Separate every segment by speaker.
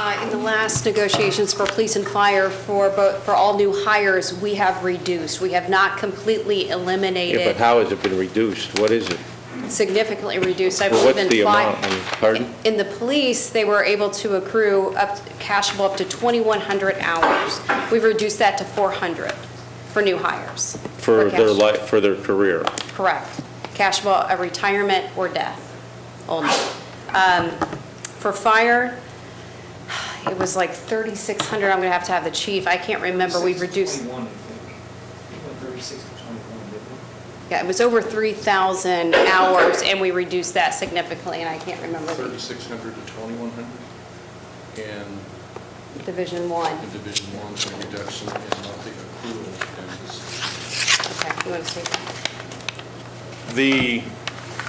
Speaker 1: Uh, In the last negotiations for police and fire for, both for all new hires, we have reduced. We have not completely
Speaker 2: Yeah, but
Speaker 1: eliminated,
Speaker 2: how has it been reduced? What is it?
Speaker 1: significantly reduced. I
Speaker 2: Well,
Speaker 1: believe
Speaker 2: what's
Speaker 1: in
Speaker 2: the
Speaker 1: five-
Speaker 2: amount? I mean, Pardon?
Speaker 1: In the police, they were able to accrue up, cashable up to 2,100 hours. We've reduced that to 400 for new hires.
Speaker 2: For their
Speaker 1: cash-
Speaker 2: life, for their career?
Speaker 1: Correct. Cashable, a retirement or death only. Um, For fire, it was like 3,600, I'm going to have to have the chief, I can't remember, we reduced,
Speaker 3: 26 to 21, I think. It went 36 to 21, didn't it?
Speaker 1: yeah, it was over 3,000 hours, and we reduced that significantly, and I can't remember the
Speaker 4: 3,600 to 2,100, and
Speaker 1: Division 1.
Speaker 4: the Division 1's a reduction in monthly accrual expenses.
Speaker 1: Okay, you want to take that?
Speaker 5: The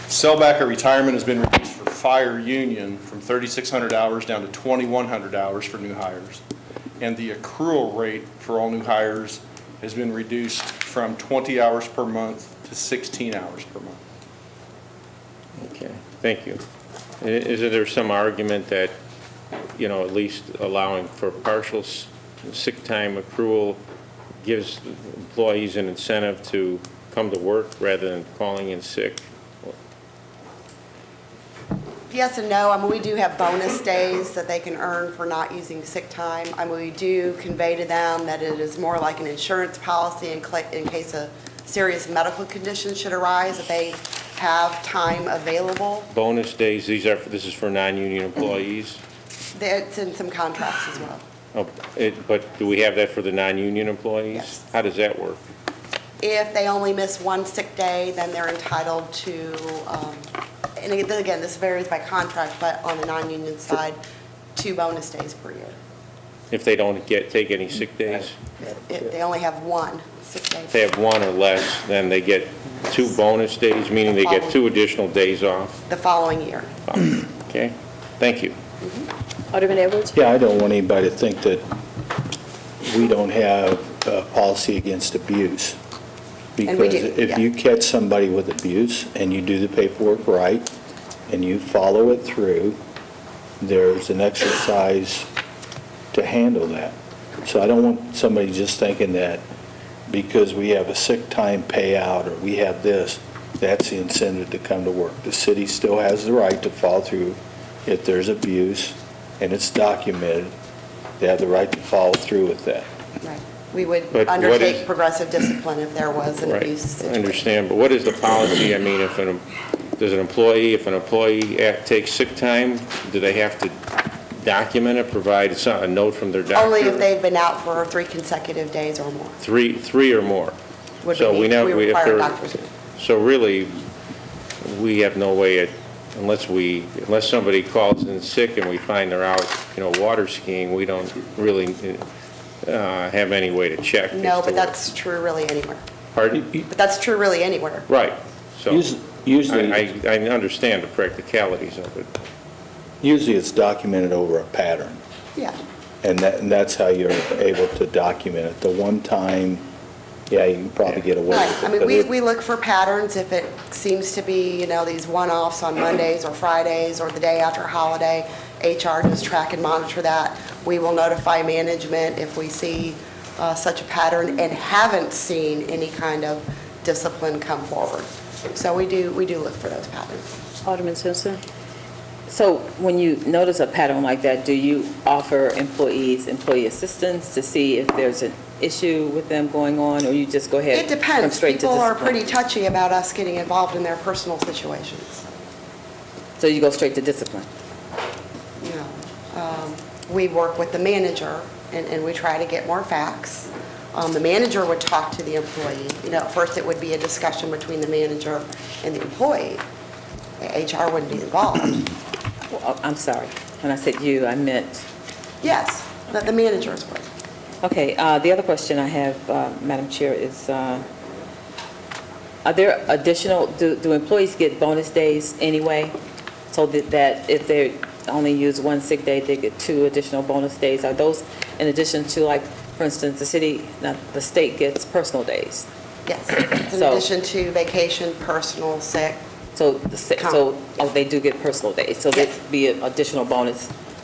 Speaker 5: sellback at retirement has been reduced for fire union from 3,600 hours down to 2,100 hours for new hires. And the accrual rate for all new hires has been reduced from 20 hours per month to 16 hours per month.
Speaker 2: Okay, thank you. I- Is there some argument that, you know, at least allowing for partial s- sick time accrual gives employees an incentive to come to work rather than calling in sick?
Speaker 6: Yes and no. I mean, we do have bonus days that they can earn for not using sick time. I mean, we do convey to them that it is more like an insurance policy in cla- in case a serious medical condition should arise, that they have time available.
Speaker 2: Bonus days, these are, this is for non-union employees?
Speaker 6: That's in some contracts as well.
Speaker 2: Oh, it- But do we have that for the non-union employees?
Speaker 6: Yes.
Speaker 2: How does that work?
Speaker 6: If they only miss one sick day, then they're entitled to, um, and again, this varies by contract, but on the non-union side, two bonus days per year.
Speaker 2: If they don't get, take any sick days?
Speaker 6: If they only have one sick day.
Speaker 2: If they have one or less, then they get two bonus days, meaning they get two additional days off.
Speaker 6: The following year.
Speaker 2: Okay? Thank you.
Speaker 1: Alderman Edwards?
Speaker 7: Yeah, I don't want anybody to think that we don't have a policy against abuse.
Speaker 6: And we do,
Speaker 7: Because if
Speaker 6: yeah.
Speaker 7: you catch somebody with abuse and you do the paperwork right and you follow it through, there's an exercise to handle that. So I don't want somebody just thinking that because we have a sick time payout or we have this, that's the incentive to come to work. The city still has the right to follow through if there's abuse and it's documented. They have the right to follow through with that.
Speaker 6: Right. We would
Speaker 2: But what is-
Speaker 6: undertake progressive discipline if there was an
Speaker 2: Right,
Speaker 6: abuse
Speaker 2: I
Speaker 6: situation.
Speaker 2: understand, but what is the policy? I mean, if an, does an employee, if an employee act- takes sick time, do they have to document it, provide some- a note from their doctor?
Speaker 6: Only if they've been out for three consecutive days or more.
Speaker 2: Three, three or more.
Speaker 6: would
Speaker 2: So
Speaker 6: be-
Speaker 2: we know,
Speaker 6: we
Speaker 2: we- if
Speaker 6: require
Speaker 2: they're-
Speaker 6: doctors.
Speaker 2: So really, we have no way, at- unless we, unless somebody calls in sick and we find they're out, you know, water skiing, we don't really uh, have any way to check. as
Speaker 6: No,
Speaker 2: to
Speaker 6: but that's true really anywhere.
Speaker 2: what- Pardon?
Speaker 6: But that's true really anywhere.
Speaker 2: Right, so.
Speaker 7: Us- Usually,
Speaker 2: I, I I understand the practicalities of it.
Speaker 7: usually it's documented over a pattern.
Speaker 6: Yeah.
Speaker 7: And that, and that's how you're able to document it. The one time, yeah, you can probably get away
Speaker 6: Right.
Speaker 7: with it.
Speaker 6: I mean,
Speaker 7: but
Speaker 6: we,
Speaker 7: it-
Speaker 6: we look for patterns if it seems to be, you know, these one-offs on Mondays or Fridays or the day after a holiday. HR does track and monitor that. We will notify management if we see uh, such a pattern and haven't seen any kind of discipline come forward. So we do, we do look for those patterns.
Speaker 8: Alderman Simpson? So when you notice a pattern like that, do you offer employees employee assistance to see if there's an issue with them going on, or you just go ahead?
Speaker 6: It
Speaker 8: come
Speaker 6: depends.
Speaker 8: straight to
Speaker 6: People are
Speaker 8: discipline?
Speaker 6: pretty touchy about us getting involved in their personal situations.
Speaker 8: So you go straight to discipline?
Speaker 6: you know, um, we work with the manager, and, and we try to get more facts. Um, The manager would talk to the employee, you know, at first it would be a discussion between the manager and the employee. HR wouldn't be involved.
Speaker 8: Well, oh, I'm sorry. When I said you, I meant,
Speaker 6: Yes, but the managers would.
Speaker 8: okay, uh, the other question I have, uh, Madam Chair, is, uh, are there additional, do do employees get bonus days anyway? So that- that if they only use one sick day, they get two additional bonus days? Are those in addition to, like, for instance, the city, not the state gets personal days?
Speaker 6: Yes, It's in
Speaker 8: So-
Speaker 6: addition to vacation, personal, sick.
Speaker 8: So, the si- so, oh, they do get personal days, so there'd be an additional bonus